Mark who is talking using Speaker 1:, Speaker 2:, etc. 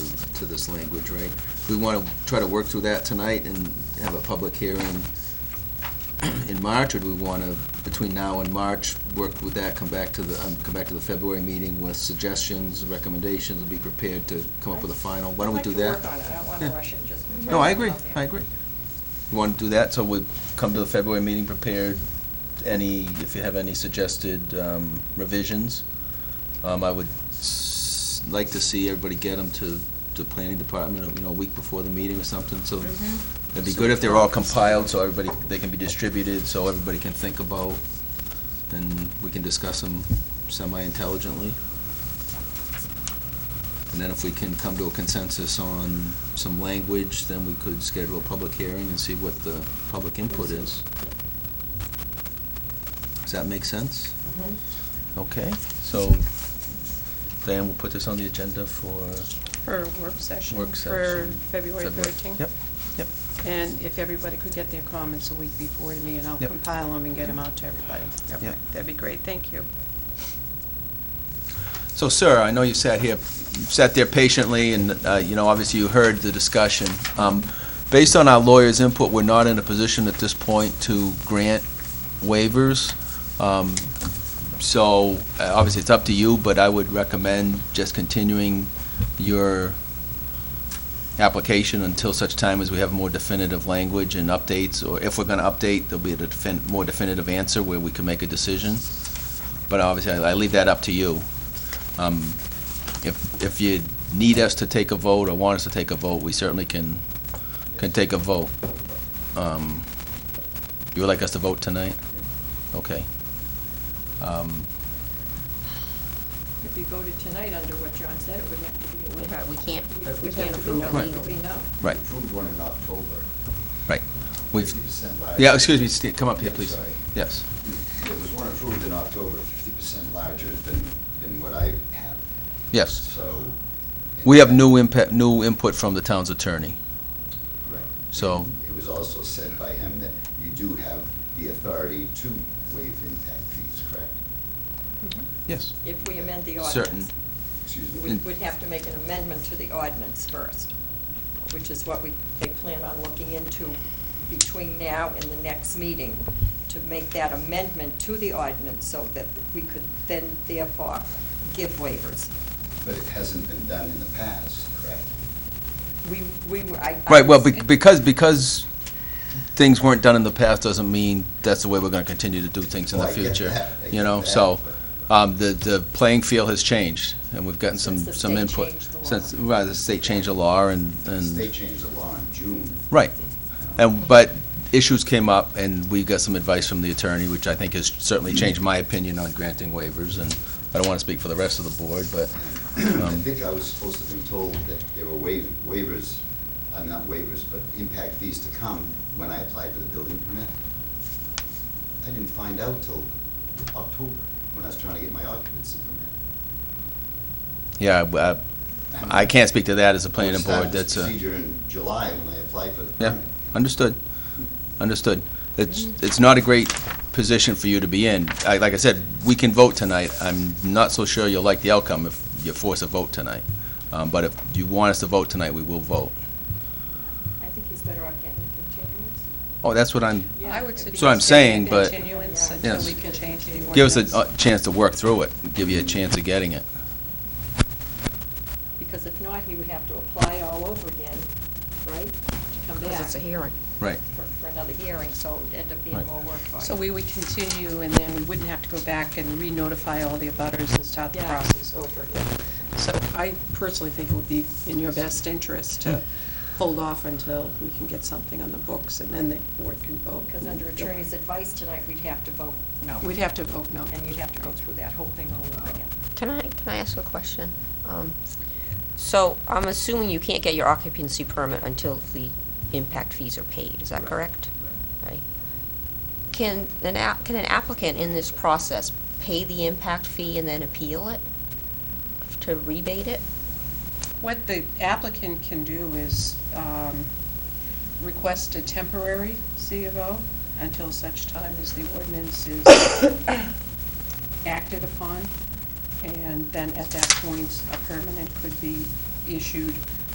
Speaker 1: to this language, right? We want to try to work through that tonight and have a public hearing in March, or do we want to, between now and March, work with that, come back to the, um, come back to the February meeting with suggestions, recommendations, and be prepared to come up with a final? Why don't we do that?
Speaker 2: I'd like to work on it, I don't want to
Speaker 1: Yeah.
Speaker 2: rush it and just.
Speaker 1: No, I
Speaker 2: throw it
Speaker 1: agree,
Speaker 2: out there.
Speaker 1: I agree. You want to do that, so we come to the February meeting prepared, any, if you have any suggested um, revisions. Um, I would s- like to see everybody get them to the planning department, you know, a week before the meeting or something,
Speaker 2: Mm-hmm,
Speaker 1: so it'd be good if they're all compiled, so everybody, they can be distributed, so everybody can think about, and we can discuss them semi-intelligently. And then if we can come to a consensus on some language, then we could schedule a public hearing and see what the public input is. Does that make sense?
Speaker 2: mm-hmm.
Speaker 1: Okay, so Diane will put this on the agenda for
Speaker 3: For work session.
Speaker 1: work
Speaker 3: For
Speaker 1: session.
Speaker 3: February
Speaker 1: February.
Speaker 3: 13th.
Speaker 1: Yep, yep.
Speaker 3: And if everybody could get their comments a week before me, and I'll
Speaker 1: Yep.
Speaker 3: compile them and get them out to everybody. Okay,
Speaker 1: Yep.
Speaker 3: That'd be great, thank you.
Speaker 1: So, sir, I know you sat here, you sat there patiently, and, uh, you know, obviously you heard the discussion. Um, Based on our lawyer's input, we're not in a position at this point to grant waivers. Um, So, uh, obviously, it's up to you, but I would recommend just continuing your application until such time as we have more definitive language and updates, or if we're going to update, there'll be a defin- more definitive answer where we can make a decision. But obviously, I I leave that up to you. Um, If, if you need us to take a vote or want us to take a vote, we certainly can, can take a vote. Um, You would like us to vote tonight? Okay. Um,
Speaker 2: If you voted tonight under what John said, it would have to be.
Speaker 4: We can't- we can't-
Speaker 2: We
Speaker 4: we
Speaker 2: can't
Speaker 4: can't
Speaker 2: approve it
Speaker 4: approve it
Speaker 2: legally,
Speaker 4: legally.
Speaker 2: no.
Speaker 1: Right.
Speaker 5: We Approved one in October.
Speaker 1: Right. We've,
Speaker 5: 50% large.
Speaker 1: yeah, excuse me, Steve, come up here,
Speaker 5: Yeah,
Speaker 1: please.
Speaker 5: sorry.
Speaker 1: Yes.
Speaker 5: There was one approved in October, fifty percent larger than, than what I have.
Speaker 1: Yes.
Speaker 5: So.
Speaker 1: We have new impact, new input from the town's attorney.
Speaker 5: Correct.
Speaker 1: So-
Speaker 5: It was also said by him that you do have the authority to waive impact fees, correct?
Speaker 1: Yes.
Speaker 2: If we amend the
Speaker 1: Certain.
Speaker 2: ordinance,
Speaker 5: Excuse
Speaker 2: we
Speaker 5: me.
Speaker 1: Mm.
Speaker 2: would have to make an amendment to the ordinance first, which is what we, they plan on looking into between now and the next meeting, to make that amendment to the ordinance so that we could then therefore give waivers.
Speaker 5: But it hasn't been done in the past, correct?
Speaker 2: We, we, were- I. I
Speaker 1: Right, well,
Speaker 2: was-
Speaker 1: be- because, because things weren't done in the past doesn't mean that's the way we're going to continue to do things in the
Speaker 5: Well, I get
Speaker 1: future.
Speaker 5: that, I
Speaker 1: You
Speaker 5: get
Speaker 1: know,
Speaker 5: that,
Speaker 1: so,
Speaker 5: but-
Speaker 1: um, the, the playing field has changed, and we've gotten some,
Speaker 2: Since the
Speaker 1: some
Speaker 2: state
Speaker 1: input.
Speaker 2: changed the law.
Speaker 1: Since, right, the state changed the law, and,
Speaker 5: They
Speaker 1: and,
Speaker 5: changed the law in June.
Speaker 1: right. And, but issues came up, and we got some advice from the attorney, which I think has certainly changed my opinion on granting waivers, and I don't want to speak for the rest of the board, but,
Speaker 5: I
Speaker 1: um,
Speaker 5: think I was supposed to have been told that there were wa- waivers, uh, not waivers, but impact fees to come when I applied for the building permit. I didn't find out till October, when I was trying to get my occupancy permit.
Speaker 1: yeah, I- I can't speak to that as a planning
Speaker 5: Started
Speaker 1: board, that's a.
Speaker 5: this procedure in July when I applied for the
Speaker 1: Yeah.
Speaker 5: permit.
Speaker 1: Understood, understood. It's, it's not a great position for you to be in. I- Like I said, we can vote tonight. I'm not so sure you'll like the outcome if you force a vote tonight. Um, But if you want us to vote tonight, we will vote.
Speaker 2: I think he's better off getting a continuance.
Speaker 1: Oh, that's what I'm,
Speaker 3: I would suggest.
Speaker 1: So I'm saying,
Speaker 3: getting a
Speaker 1: but-
Speaker 3: Continuance
Speaker 2: Yeah.
Speaker 3: until
Speaker 1: Yes.
Speaker 3: we can change the
Speaker 1: give us
Speaker 3: ordinance.
Speaker 1: a uh, a chance to work through it, give you a chance of getting it.
Speaker 2: Because if not, he would have to apply all over again, right, to come back.
Speaker 4: Because it's a hearing.
Speaker 1: Right.
Speaker 2: For, for another hearing, so it'd end up being
Speaker 1: Right.
Speaker 2: more work for him.
Speaker 3: So we would continue, and then we wouldn't have to go back and re-notify all the abutters and start the
Speaker 2: Yeah,
Speaker 3: process over
Speaker 2: over
Speaker 3: again. So I personally think it would be in your best interest
Speaker 1: Yeah.
Speaker 3: to hold off until we can get something on the books, and then the board can vote.
Speaker 2: Because under attorney's advice tonight, we'd have to vote no.
Speaker 3: We'd have to vote no.
Speaker 2: And you'd have to go through that whole thing all over again.
Speaker 4: Can I, can I ask a question? Um, So I'm assuming you can't get your occupancy permit until the impact fees are paid, is that
Speaker 5: Right,
Speaker 4: correct? Right. Can an app, can an applicant in this process pay the impact fee and then appeal it? To rebate it?
Speaker 3: What the applicant can do is um, request a temporary C of O until such time as the ordinance is acted upon, and then at that point, a permanent could be issued